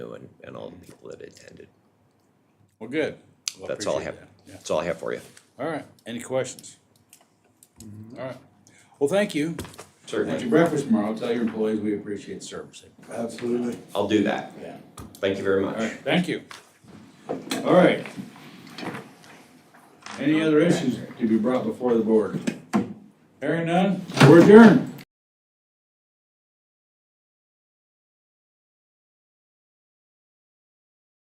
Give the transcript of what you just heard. and, and all the people that attended. Well, good. Well, That's all I have, appreciate that. that's all I have for you. Yeah. All right. Any questions? All right. Well, thank you. At Certainly, your breakfast tomorrow, tell your employees we appreciate the service. Absolutely. I'll do that. Yeah. Thank you very All much. right, thank you. All right. Any other issues to be brought before the board? Hearing none, we're adjourned.